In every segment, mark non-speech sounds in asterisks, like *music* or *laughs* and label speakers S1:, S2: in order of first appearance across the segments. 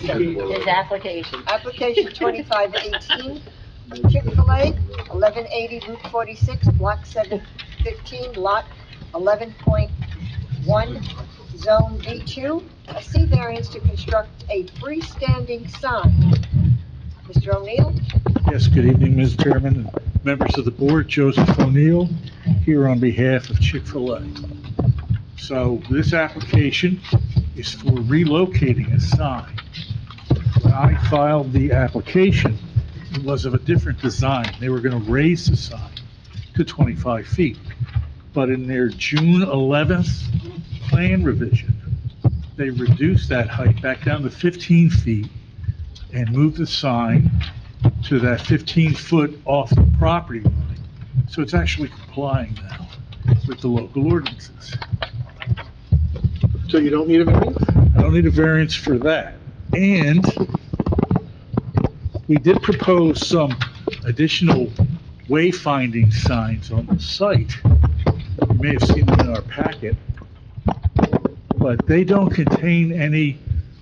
S1: His application.
S2: Application twenty-five eighteen, Chick-fil-A, eleven eighty Route forty-six, block seven fifteen, lot eleven point one, zone B two, a C variance to construct a freestanding sign. Mr. O'Neill?
S3: Yes, good evening, Ms. Chairman, and members of the board, Joseph O'Neill, here on behalf of Chick-fil-A. So this application is for relocating a sign. When I filed the application, it was of a different design. They were going to raise the sign to 25 feet. But in their June 11th plan revision, they reduced that height back down to 15 feet and moved the sign to that 15-foot off the property line. So it's actually complying now with the local ordinances.
S4: So you don't need a variance?
S3: I don't need a variance for that. And we did propose some additional wayfinding signs on the site. You may have seen them in our packet. But they don't contain any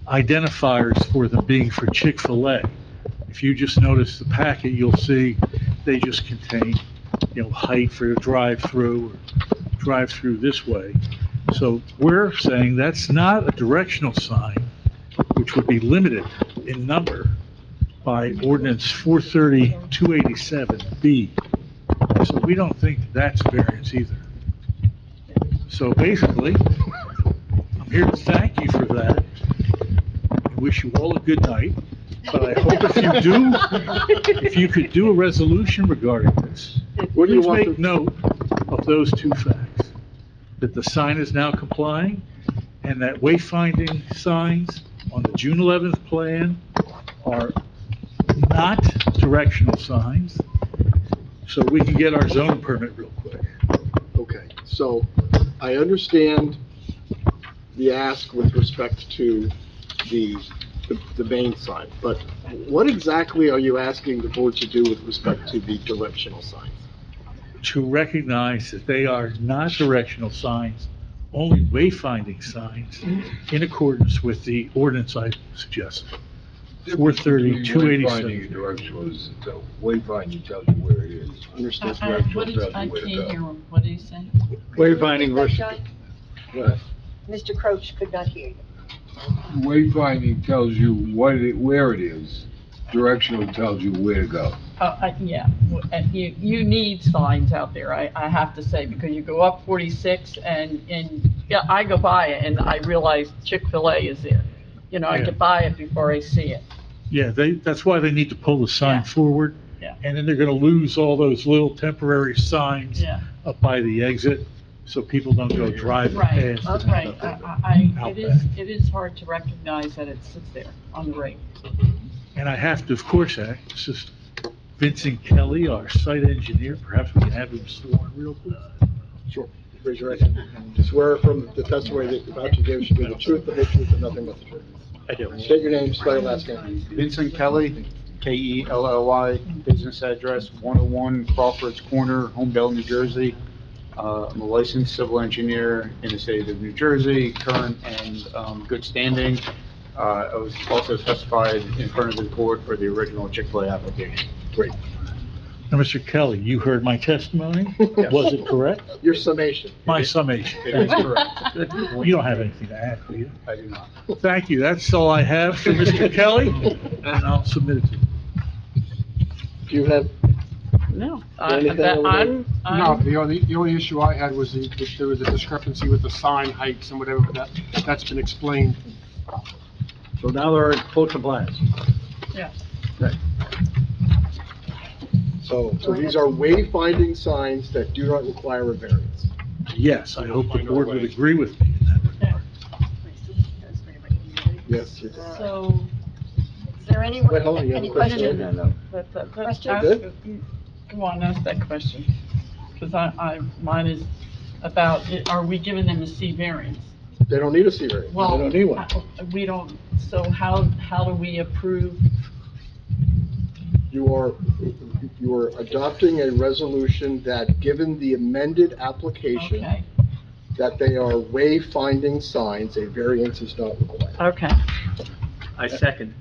S3: identifiers for them being for Chick-fil-A. If you just notice the packet, you'll see they just contain, you know, height for a drive-through, or drive-through this way. So we're saying that's not a directional sign, which would be limited in number by ordinance 430-287B. So we don't think that's variance either. So basically, I'm here to thank you for that. I wish you all a good night, but I hope if you do, if you could do a resolution regarding this,
S4: What do you
S3: please
S4: want
S3: make
S4: to-
S3: note of those two facts, that the sign is now complying, and that wayfinding signs on the June 11th plan are not directional signs, so we can get our zone permit real quick.
S4: Okay, so I understand the ask with respect to the, the- the main sign, but what exactly are you asking the board to do with respect to the directional signs?
S3: to recognize that they are not directional signs, only wayfinding signs in accordance with the ordinance I suggested. Four thirty, two
S5: Wayfinding and
S3: eighty-seven.
S5: directional is, the wayfinding tells you where it is.
S4: Understood?
S6: Uh,
S5: I- I- what did- I can't hear
S6: what did he say?
S2: Wayfinding versus.
S5: What?
S2: Mr. Croach could not hear you.
S5: Wayfinding tells you what it, where it is. Directional tells you where to go.
S6: Uh, I- yeah, w- and you, you need signs out there, I, I have to say, because you go up forty-six and, and, yeah, I go by it and I realize Chick-fil-A is there. You know, I
S3: Yeah.
S6: get by it before I see it.
S3: Yeah, they, that's why they need to pull the sign
S6: Yeah.
S3: forward.
S6: Yeah.
S3: And then they're gonna lose all those little temporary signs up by the exit, so people don't go driving
S6: Right,
S3: past.
S6: that's
S3: and
S6: right,
S3: end up there.
S6: I, I,
S3: Out
S6: it is, it is hard to recognize that it sits there on the ring.
S3: And I have to, of course, act, this is Vincent Kelly, our site engineer, perhaps we can have him sworn real quick.
S4: Sure. Raise your right hand. Swear from the testimony that you're about to give should be the truth, the whole truth, and nothing but the truth.
S7: I do.
S4: State your name, spell your last name.
S7: Vincent Kelly, K-E-L-L-I, business address 101 Crawford's Corner, Homedale, New Jersey. Uh, I'm a licensed civil engineer in the state of New Jersey, current and um, good standing. Uh, I was also testified in front of the board for the original Chick-fil-A application.
S3: Now, Mr. Kelly, you heard my testimony?
S4: Yes.
S3: Was it correct?
S4: Your summation.
S3: My summation.
S7: It is correct.
S6: *laughs*
S3: You don't have anything to add, do you?
S7: I do not.
S3: Thank you. That's all I have for Mr.
S4: *laughs*
S3: Kelly, and I'll submit it to you.
S4: Do you have,
S6: No.
S4: Anything over there?
S6: I'm,
S8: No,
S6: I'm,
S8: the only, the only issue I had was the, that there was a discrepancy with the sign heights and whatever, but that, that's been explained.
S7: So now they're in full compliance.
S6: yeah.
S4: so, so these are wayfinding signs that do not require a variance.
S3: Yes, I hope the board would agree with me.
S4: Yes, you did.
S6: So,
S2: Is there anyone,
S4: Wait, hold on, you have a
S2: any
S4: question?
S2: questions?
S6: That's, that's,
S2: Question?
S6: ask- Go on, ask that question, because I, I, mine is about, are we giving them a C variance?
S4: They don't need a C variance. They
S6: Well,
S4: don't need one.
S6: I- We don't, so how, how do we approve?
S4: You are, you are adopting a resolution that, given the amended application,
S6: Okay,
S4: that they are wayfinding signs, a variance is not required.
S6: okay.
S7: I second.